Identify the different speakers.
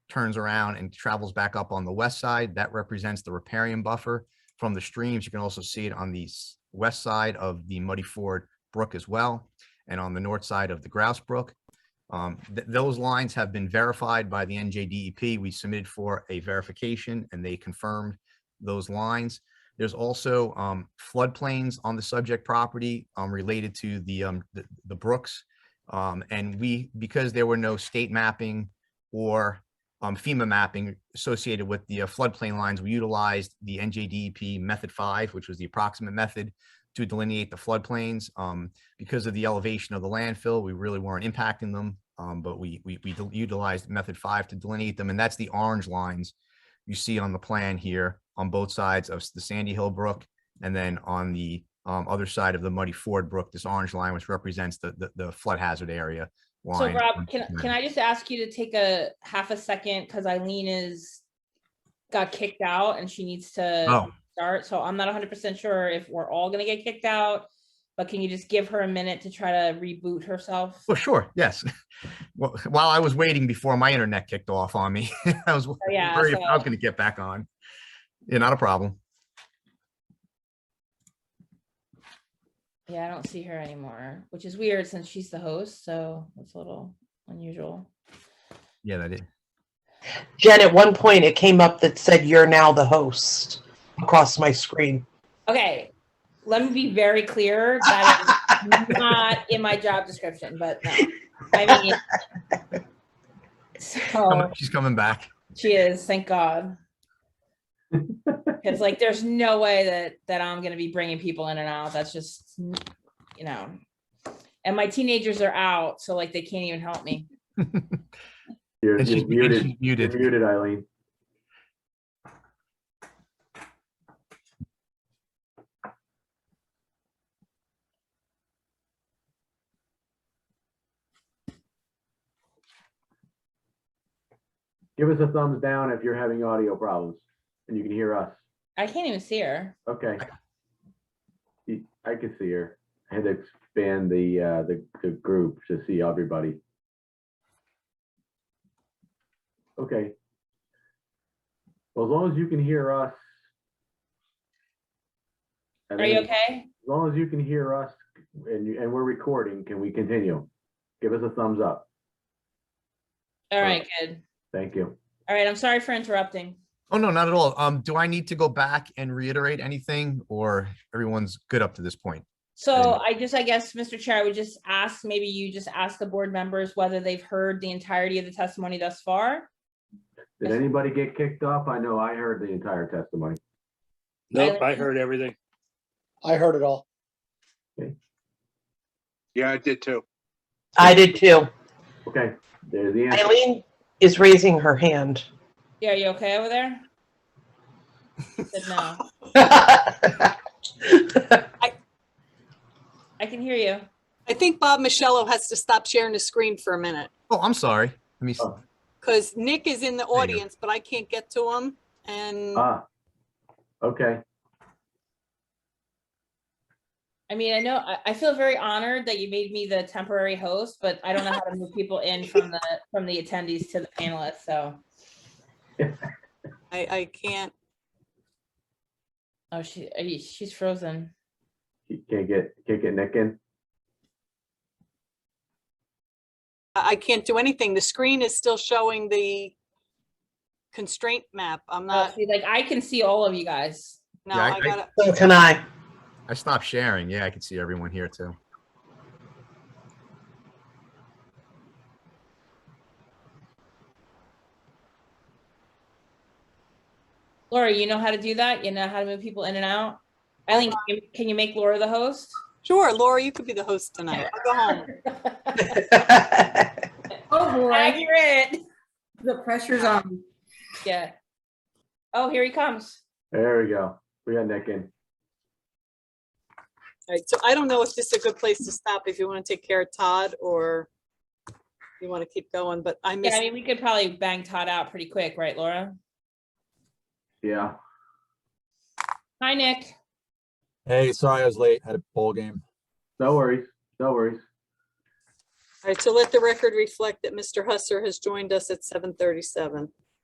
Speaker 1: turns around and travels back up on the west side. That represents the riparian buffer from the streams. You can also see it on the s- west side of the Muddy Ford Brook as well, and on the north side of the Grouse Brook. Um, th- Those lines have been verified by the NJDEP. E We submitted for a verification, and they confirmed those lines. There's also um, floodplains on the subject property um, related to the, um, the- the brooks. Um, And we, because there were no state mapping or um, FEMA mapping associated with the uh, floodplain lines, we utilized the NJDEP E method five, which was the approximate method to delineate the floodplains. Um, Because of the elevation of the landfill, we really weren't impacting them, um, but we, we we utilized method five to delineate them, and that's the orange lines you see on the plan here on both sides of the Sandy Hill Brook. And then on the um, other side of the Muddy Ford Brook, this orange line, which represents the, the- the flood hazard area.
Speaker 2: So
Speaker 1: line.
Speaker 2: Rob, can, can I just ask you to take a half a second, because Eileen is, got kicked out and she needs to
Speaker 1: Oh,
Speaker 2: start, so I'm not hundred percent sure if we're all gonna get kicked out. But can you just give her a minute to try to reboot herself?
Speaker 1: well, sure, yes. Well, While I was waiting before my internet kicked off on me, I was worried
Speaker 2: Oh, yeah,
Speaker 1: if I was
Speaker 2: so-
Speaker 1: gonna get back on. Yeah, not a problem.
Speaker 2: Yeah, I don't see her anymore, which is weird since she's the host, so it's a little unusual.
Speaker 1: Yeah, that is.
Speaker 3: Jen, at one point it came up that said you're now the host across my screen.
Speaker 2: Okay, let me be very clear, that is not in my job description, but no, I mean. So.
Speaker 1: She's coming back.
Speaker 2: She is, thank God. It's like, there's no way that, that I'm gonna be bringing people in and out. That's just, n- you know. And my teenagers are out, so like they can't even help me.
Speaker 4: You're,
Speaker 1: And she's
Speaker 4: you're
Speaker 1: and
Speaker 4: muted.
Speaker 1: she's muted.
Speaker 4: You're muted, Eileen. Give us a thumbs down if you're having audio problems and you can hear us.
Speaker 2: I can't even see her.
Speaker 4: Okay. You- I can see her. I had to expand the, uh, the, the group to see everybody. Okay. Well, as long as you can hear us. I
Speaker 2: Are you
Speaker 4: think
Speaker 2: okay?
Speaker 4: As long as you can hear us and, you- and we're recording, can we continue? Give us a thumbs up.
Speaker 2: All right, good.
Speaker 4: Thank you.
Speaker 2: All right, I'm sorry for interrupting.
Speaker 1: Oh, no, not at all. Um, do I need to go back and reiterate anything or everyone's good up to this point?
Speaker 2: So
Speaker 1: And-
Speaker 2: I just, I guess, Mr. Chair, I would just ask, maybe you just ask the board members whether they've heard the entirety of the testimony thus far.
Speaker 4: Did
Speaker 2: Yes.
Speaker 4: anybody get kicked off? I know I heard the entire testimony.
Speaker 5: Nope, I
Speaker 2: Eileen?
Speaker 5: heard everything.
Speaker 6: I heard it all.
Speaker 5: Yeah, I did too.
Speaker 3: I did too.
Speaker 4: Okay, there's the answer.
Speaker 3: Eileen is raising her hand.
Speaker 2: Yeah, you okay over there? She Said no. I can hear you.
Speaker 7: I think Bob Michello has to stop sharing the screen for a minute
Speaker 1: Oh, I'm sorry. Let me, s-
Speaker 4: Oh.
Speaker 7: because Nick is in the
Speaker 1: you go. Uh.
Speaker 7: audience, but I can't get to him. And
Speaker 4: Ah, okay.
Speaker 2: I mean, I know, I, I feel very honored that you made me the temporary host, but I don't know how to move people in from the, from the attendees to the panelists, so.
Speaker 7: I, I can't,
Speaker 2: Oh, she, eh, she's frozen.
Speaker 4: You Can't get, can't get Nick in?
Speaker 7: I I can't do anything. The screen is still showing the constraint map. I'm
Speaker 2: Oh,
Speaker 8: Uh,
Speaker 7: not,
Speaker 2: see, like, I can see all of you guys.
Speaker 7: no,
Speaker 1: Yeah, I-
Speaker 7: I gotta,
Speaker 3: So can I.
Speaker 1: I stopped sharing. Yeah, I can see everyone here too.
Speaker 2: Laura, you know how to do that? You know how to move people in and out? Eileen, can you- can you make Laura the host?
Speaker 7: sure, Laura, you could be the host tonight. I'll go home.
Speaker 8: Oh, boy,
Speaker 2: Accurate.
Speaker 8: the pressure's on.
Speaker 2: Yeah. Oh, here he comes.
Speaker 4: There we go. We got Nick in.
Speaker 7: All right, so I don't know if this is a good place to stop, if you want to take care of Todd or you want to keep going, but I
Speaker 2: Yeah, I
Speaker 7: missed,
Speaker 2: mean, we could probably bang Todd out pretty quick, right, Laura?
Speaker 4: Yeah.
Speaker 2: Hi, Nick.
Speaker 9: Hey, sorry I was late. Had a bowl game.
Speaker 4: No worries. No worries.
Speaker 7: right, so let the record reflect that Mr. Husser has joined us at seven thirty-seven.